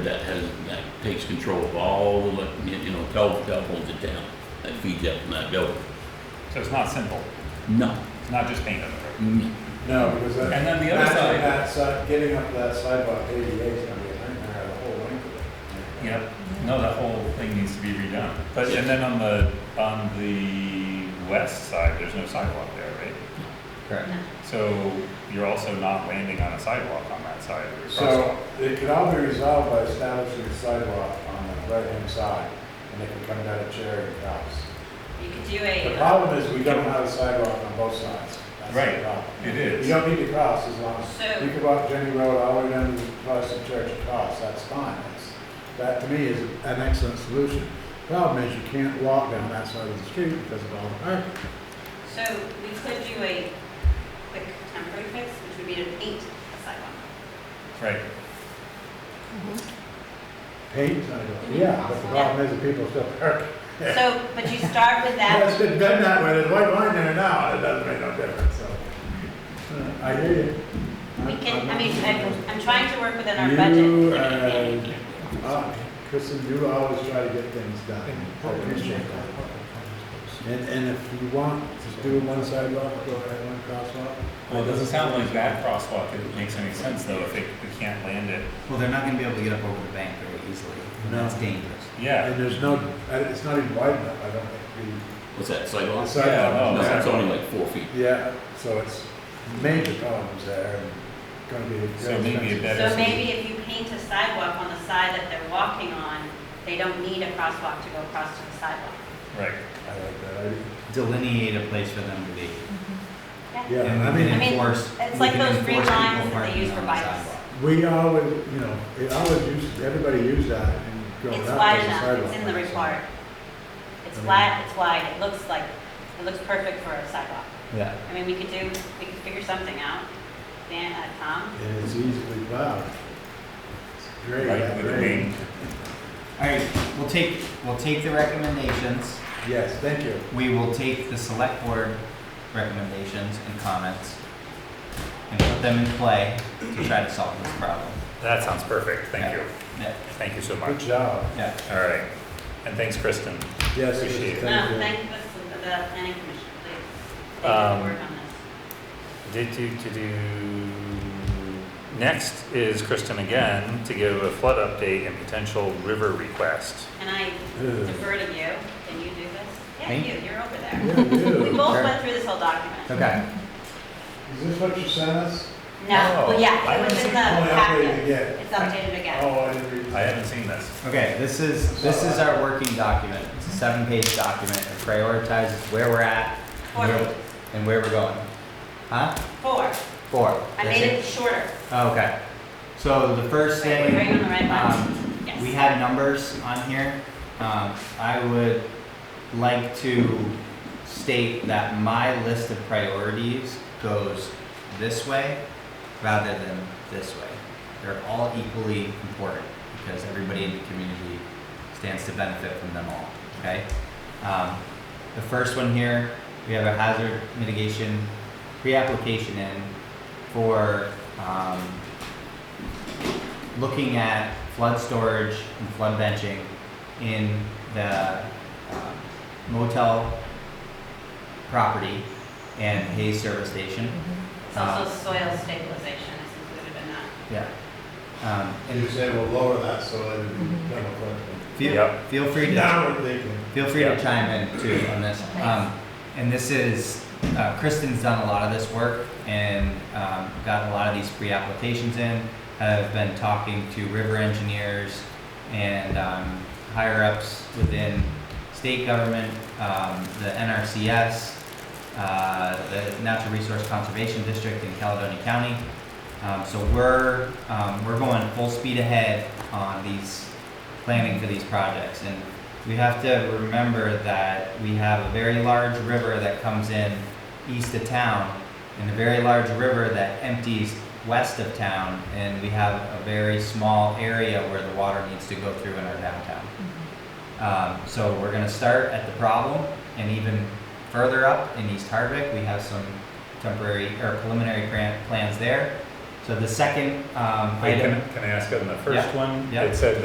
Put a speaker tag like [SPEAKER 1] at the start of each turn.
[SPEAKER 1] that has, that takes control of all the, elec- you know, telephone, telephones in town, that feeds up from that building.
[SPEAKER 2] So it's not simple,
[SPEAKER 1] No,
[SPEAKER 2] it's not just paint on the road.
[SPEAKER 1] no,
[SPEAKER 3] No, because that.
[SPEAKER 2] And then the other
[SPEAKER 3] matching
[SPEAKER 2] side-
[SPEAKER 3] That side, getting up that sidewalk ADA is gonna be a nightmare, the whole length of it.
[SPEAKER 2] Yep, no, that whole thing needs to be redone. But, and then on the, on the west side, there's no sidewalk there, right?
[SPEAKER 3] Correct.
[SPEAKER 2] So you're also not landing on a sidewalk on that side of the
[SPEAKER 3] So
[SPEAKER 2] crosswalk.
[SPEAKER 3] it could all be resolved by establishing a sidewalk on the right-hand side, and they can come down a chair and cross.
[SPEAKER 4] You could do
[SPEAKER 3] The
[SPEAKER 4] a, uh,
[SPEAKER 3] problem is we don't have a sidewalk on both sides. That's the
[SPEAKER 2] Right,
[SPEAKER 3] problem.
[SPEAKER 2] it
[SPEAKER 3] You
[SPEAKER 2] is.
[SPEAKER 3] don't need to cross as long as,
[SPEAKER 4] So-
[SPEAKER 3] you can walk Jenny Road all the way down to Protestant Church and cross, that's fine. That's- That to me is an excellent solution. Problem is you can't walk down that side of the street because of all the parking.
[SPEAKER 4] so we could do a quick temporary fix, which would be to paint the sidewalk.
[SPEAKER 2] Right,
[SPEAKER 3] Paint, yeah, but the problem is that people still park.
[SPEAKER 4] So, but you start with
[SPEAKER 3] It's
[SPEAKER 4] that,
[SPEAKER 3] been done that way, there's white line there now, and it doesn't make no difference, so. Uh, I hear you.
[SPEAKER 4] we can, I mean, I'm, I'm trying to work within our budget.
[SPEAKER 3] You, uh, uh, Kristen, you always try to get things done. I appreciate that. And, and if you want to do one sidewalk, go ahead, one crosswalk.
[SPEAKER 2] well, it doesn't sound like that crosswalk it makes any sense though, if it, we can't land it.
[SPEAKER 5] Well, they're not gonna be able to get up over the bank very easily, and that's
[SPEAKER 3] No.
[SPEAKER 5] dangerous.
[SPEAKER 2] Yeah,
[SPEAKER 3] And there's no, and it's not even wide enough, I don't think,
[SPEAKER 1] what's that,
[SPEAKER 3] the- the
[SPEAKER 1] sidewalk?
[SPEAKER 2] no,
[SPEAKER 3] sidewalk.
[SPEAKER 1] No,
[SPEAKER 3] is-
[SPEAKER 1] it's only like four feet.
[SPEAKER 3] Yeah, so it's major problems there and gonna be. very
[SPEAKER 2] So maybe
[SPEAKER 3] expensive.
[SPEAKER 2] that
[SPEAKER 4] So
[SPEAKER 2] is-
[SPEAKER 4] maybe if you paint a sidewalk on the side that they're walking on, they don't need a crosswalk to go across to the sidewalk.
[SPEAKER 2] right.
[SPEAKER 3] I like that idea.
[SPEAKER 5] Delineate a place for them to be.
[SPEAKER 4] Yeah.
[SPEAKER 3] Yeah,
[SPEAKER 5] And
[SPEAKER 3] I
[SPEAKER 5] we
[SPEAKER 3] mean,
[SPEAKER 5] can
[SPEAKER 4] I mean,
[SPEAKER 5] enforce-
[SPEAKER 4] it's
[SPEAKER 5] we
[SPEAKER 4] like
[SPEAKER 5] can
[SPEAKER 4] those
[SPEAKER 5] enforce
[SPEAKER 4] green
[SPEAKER 5] people
[SPEAKER 4] lines that they
[SPEAKER 5] parking
[SPEAKER 4] use for
[SPEAKER 5] on the
[SPEAKER 4] bikes.
[SPEAKER 5] sidewalk.
[SPEAKER 3] we always, you know, it always used, everybody used that and growing up.
[SPEAKER 4] It's wide
[SPEAKER 3] as a
[SPEAKER 4] enough, it's
[SPEAKER 3] sidewalk.
[SPEAKER 4] in the report.
[SPEAKER 3] I
[SPEAKER 4] It's
[SPEAKER 3] mean-
[SPEAKER 4] flat, it's wide, it looks like, it looks perfect for a sidewalk.
[SPEAKER 5] Yeah.
[SPEAKER 4] I mean, we could do, we could figure something out, Dan, uh, Tom.
[SPEAKER 3] And it's easily plowed. It's Great.
[SPEAKER 2] Right,
[SPEAKER 3] that
[SPEAKER 2] with the
[SPEAKER 3] grade.
[SPEAKER 2] wing.
[SPEAKER 5] All right, we'll take, we'll take the recommendations,
[SPEAKER 3] Yes, thank you.
[SPEAKER 5] we will take the select board recommendations and comments and put them in play to try to solve this problem.
[SPEAKER 2] That sounds perfect, thank you,
[SPEAKER 5] Yeah,
[SPEAKER 2] thank you so
[SPEAKER 3] Good
[SPEAKER 2] much.
[SPEAKER 3] job.
[SPEAKER 5] yeah.
[SPEAKER 2] All right, and thanks, Kristen.
[SPEAKER 3] Yes,
[SPEAKER 2] Appreciate it.
[SPEAKER 3] thank
[SPEAKER 4] No,
[SPEAKER 3] you.
[SPEAKER 4] Um, thank the, the planning commission, please. They
[SPEAKER 2] Um,
[SPEAKER 4] did work on
[SPEAKER 2] Did
[SPEAKER 4] this.
[SPEAKER 2] do to do. Next is Kristen again to give a flood update and potential river request.
[SPEAKER 4] And I
[SPEAKER 3] Ugh.
[SPEAKER 4] defer to you, can you do this? Yeah,
[SPEAKER 5] Me?
[SPEAKER 4] you, you're over there.
[SPEAKER 3] Yeah, you.
[SPEAKER 4] We both went through this whole document.
[SPEAKER 5] Okay,
[SPEAKER 3] Is this what you sent us?
[SPEAKER 4] No,
[SPEAKER 2] No,
[SPEAKER 4] well, yeah,
[SPEAKER 2] I
[SPEAKER 4] it was
[SPEAKER 2] haven't
[SPEAKER 4] in the
[SPEAKER 3] Oh, I updated
[SPEAKER 4] packet.
[SPEAKER 3] again.
[SPEAKER 4] It's updated again.
[SPEAKER 3] Oh, I didn't read.
[SPEAKER 2] I haven't seen this.
[SPEAKER 5] okay, this is, this is our working document, it's a seven-page document, it prioritizes where we're at
[SPEAKER 4] Four,
[SPEAKER 5] and where- and where we're going. Huh?
[SPEAKER 4] four.
[SPEAKER 5] Four.
[SPEAKER 4] I
[SPEAKER 5] That's Oh,
[SPEAKER 4] made it shorter.
[SPEAKER 5] Okay. So the first
[SPEAKER 4] Wait,
[SPEAKER 5] thing.
[SPEAKER 4] we're on the right
[SPEAKER 5] um,
[SPEAKER 4] one? Yes.
[SPEAKER 5] We had numbers on here. Um, I would like to state that my list of priorities goes this way rather than this way. They're all equally important because everybody in the community stands to benefit from them all, okay? Um, the first one here, we have a hazard mitigation pre-application in for, um, looking at flood storage and flood benching in the um, motel property and Hayes service station.
[SPEAKER 4] It's also soil stabilization is included in that.
[SPEAKER 5] Yeah. Um,
[SPEAKER 3] And you
[SPEAKER 5] and
[SPEAKER 3] said we'll lower that so it'll be double
[SPEAKER 5] feel,
[SPEAKER 2] Yep.
[SPEAKER 5] feel free
[SPEAKER 3] quick.
[SPEAKER 5] to,
[SPEAKER 3] Now we're thinking.
[SPEAKER 5] feel free
[SPEAKER 2] Yeah.
[SPEAKER 5] to chime in too on this. Um, and this is, uh, Kristen's done a lot of this work and, um, gotten a lot of these pre-applications in. Have been talking to river engineers and, um, higher ups within state government, um, the NRCS, uh, the Natural Resource Conservation District in Caledonia County. Um, so we're, um, we're going full speed ahead on these, planning for these projects. And we have to remember that we have a very large river that comes in east of town and a very large river that empties west of town. And we have a very small area where the water needs to go through in our downtown. Um, so we're gonna start at the problem and even further up in East Hardwick, we have some temporary or preliminary grant plans there.
[SPEAKER 2] So the second um,
[SPEAKER 5] Wait,
[SPEAKER 2] item.
[SPEAKER 5] um, can, can I ask on the first one?
[SPEAKER 2] yeah.
[SPEAKER 5] It said